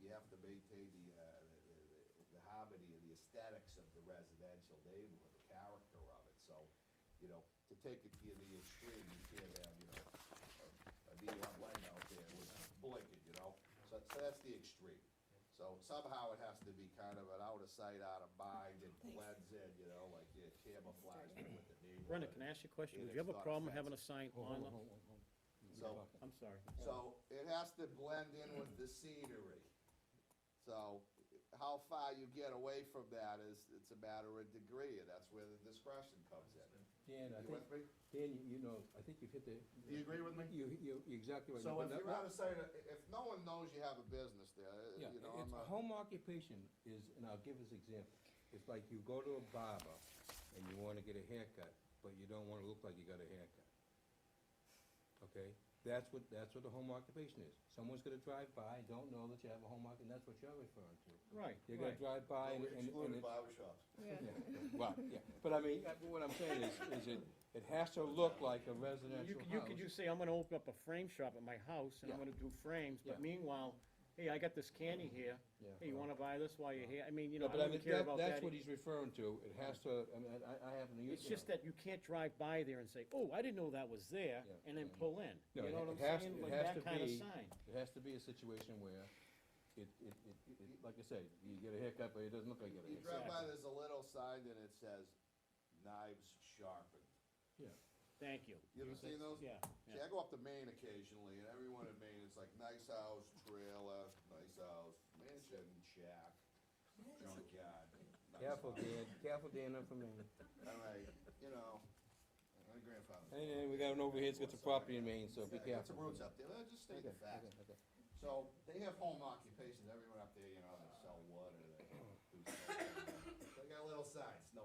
you have to maintain the, uh, the, the- the harmony and the aesthetics of the residential neighborhood, the character of it, so, you know, to take it to the extreme, you can't have, you know, a- a neon light out there with blinking, you know, so, so that's the extreme. So somehow it has to be kind of an out of sight, out of mind, it blends in, you know, like it camouflaged with the neighborhood. Brenda, can I ask you a question? And Would you it's have a not problem having a sign Hold- hold on the, on, hold on, hold on. So- I'm sorry. So it has to blend in with the scenery. So how far you get away from that is, it's a matter of degree, and that's where the discretion comes in. Dan, I You with think, me? Dan, you- you know, I think you've hit the. Do you agree with me? You, you, you're exactly right. So But if that- you're out of sight, of- if no one knows you have a business there, uh, Yeah, you know, it's, I'm a. home occupation is, and I'll give this example, it's like you go to a barber and you wanna get a haircut, but you don't wanna look like you got a haircut. Okay, that's what, that's what the home occupation is, someone's gonna drive by, don't know that you have a home occup, and that's what you're referring to. Right, You're gonna right. drive by and, We're and, and excluded it's. barber shops. yeah, Right, yeah, but I mean, uh, what I'm saying is, is it, it has to look like a You residential could, you house. could just say, I'm gonna open up a frame shop at my house, and I'm Yeah. gonna do frames, but Yeah. meanwhile, hey, I got this candy here, Yeah. hey, you wanna buy this while you're here, I mean, you know, Uh-huh. No, I but I mean, don't that, care about that. e- that's what he's referring to, it has to, I mean, I- I, I haven't used. It's just that you can't drive by there and say, oh, I didn't know that was there, Yeah, and then yeah. pull in, No, you it- know what it I'm has- saying? it Like has that to kinda be- sign. It has to be a situation where it, it, it, it, like I say, you get a haircut, but it doesn't look like you got a You haircut. drive by, there's a little sign that it says knives sharpened. Thank you. You ever seen those? Yeah, See, I go up to Maine occasionally, and everyone in Maine, it's like nice house, trailer, nice house, mansion, shack, junkyard. nice Careful, house. Dan, careful, Dan, I'm from Maine. All right, you know, my grandfather. Anyway, we got an overhead, it's got some property in Maine, so be He's got- he's got some careful. roots up there, Let's just state Okay, the facts. okay, okay. So, they have home occupations, everyone up there, you know, they sell wood or they do something. They got little signs, no.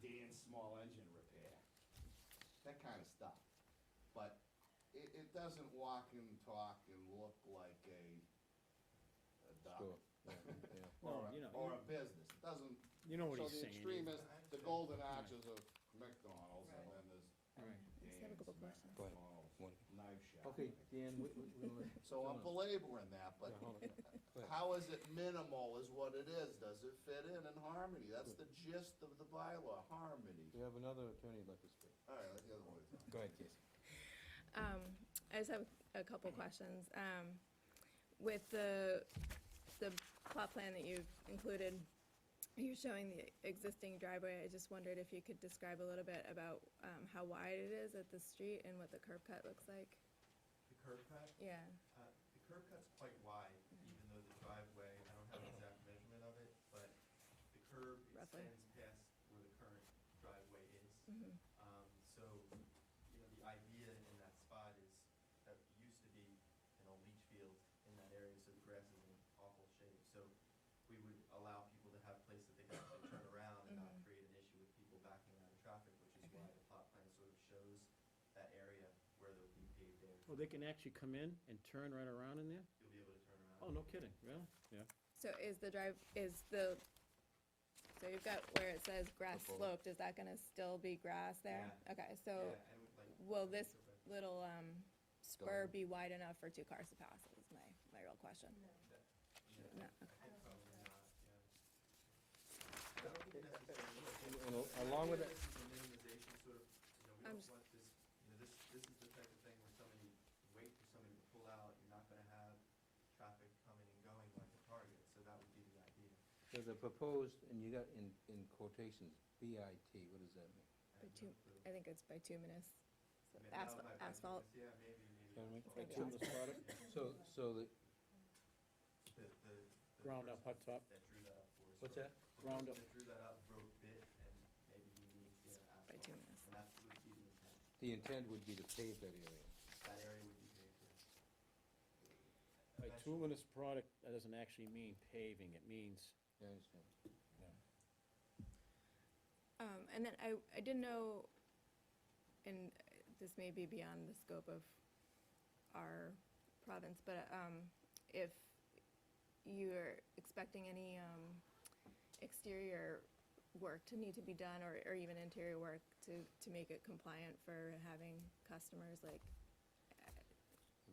Dan's small engine repair, that kinda stuff. But it, it doesn't walk and talk and look like a, a Sure, duck. yeah, yeah. Or Well, you know, a, or a business, it doesn't, You know what so he's the saying. extreme Ian. is the golden arches of McDonald's and then there's Dan's Right. have a couple questions. Go ahead. McDonald's One. knife shop. Okay, Dan, we, we, we gonna let- So I'm Dylan. belaboring that, but Yeah, hold on. Go ahead. how is it minimal is what it is, does it fit in in harmony, that's the gist of the bylaw, harmony. We have another attorney like this. Alright, let the other one. Go ahead, Casey. Um, I just have a couple questions. Um, with the, the plot plan that you've included, you're showing the existing driveway. I just wondered if you could describe a little bit about, um, how wide it is at the street and what the curb cut looks like? The curb cut, Yeah, uh, the curb cut's quite wide, even though the driveway, I don't have an exact measurement of it, but the curb Roughly. extends past where the current driveway is. Mhm. Um, so, you know, the idea in that spot is, that used to be an old leach field in that area, so the grass is in awful shape. So we would allow people to have places that they can actually turn around and not Mhm. create an issue with people backing out of traffic, which is Okay. why the plot plan sort of shows that area where there'll be paved areas. Well, they can actually come in and turn right around in there? You'll be able to turn around. Oh, no kidding, really? Yeah. so is the drive, is the, so you've got where it says grass bullet. sloped, is that gonna still be grass there? Okay, so Yeah, I would like. will this Sure, but little, um, spur be wide enough for two cars to pass is my, my real question. yeah, No. I think probably not, yeah. I don't think necessarily. And- and al- along with Maybe that, This is a minimization sort of, you know, we I'm don't just- want this, you know, this, this is the type of thing where somebody, wait for somebody to pull out, you're not gonna have traffic coming and going like a target, so that would be the idea. so the proposed, and you got in, in quotations, B I T, what does that mean? I have But two- no clue. I think it's bituminous, so Maybe that asphalt, might be- asphalt, Yeah, maybe, maybe. Pardon me? asphalt. It's gonna be Bituminous product? So, so the, The, the. the Ground up, hot person top. That drew that up for us. what's or- that? the Ground person up. That drew that up, wrote bit, and maybe he needs, yeah, asphalt. bituminous. And that's would be the intent. The intent would be to pave that area. That area would be paved, yeah. Eventually. Bituminous product, that doesn't actually mean paving, it means, Yeah, I understand. Um, and then I, I didn't know, and uh, this may be beyond the scope of our province, but, um, if you're expecting any, um, exterior work to need to be done, or, or even interior work to, to make it compliant for having customers, like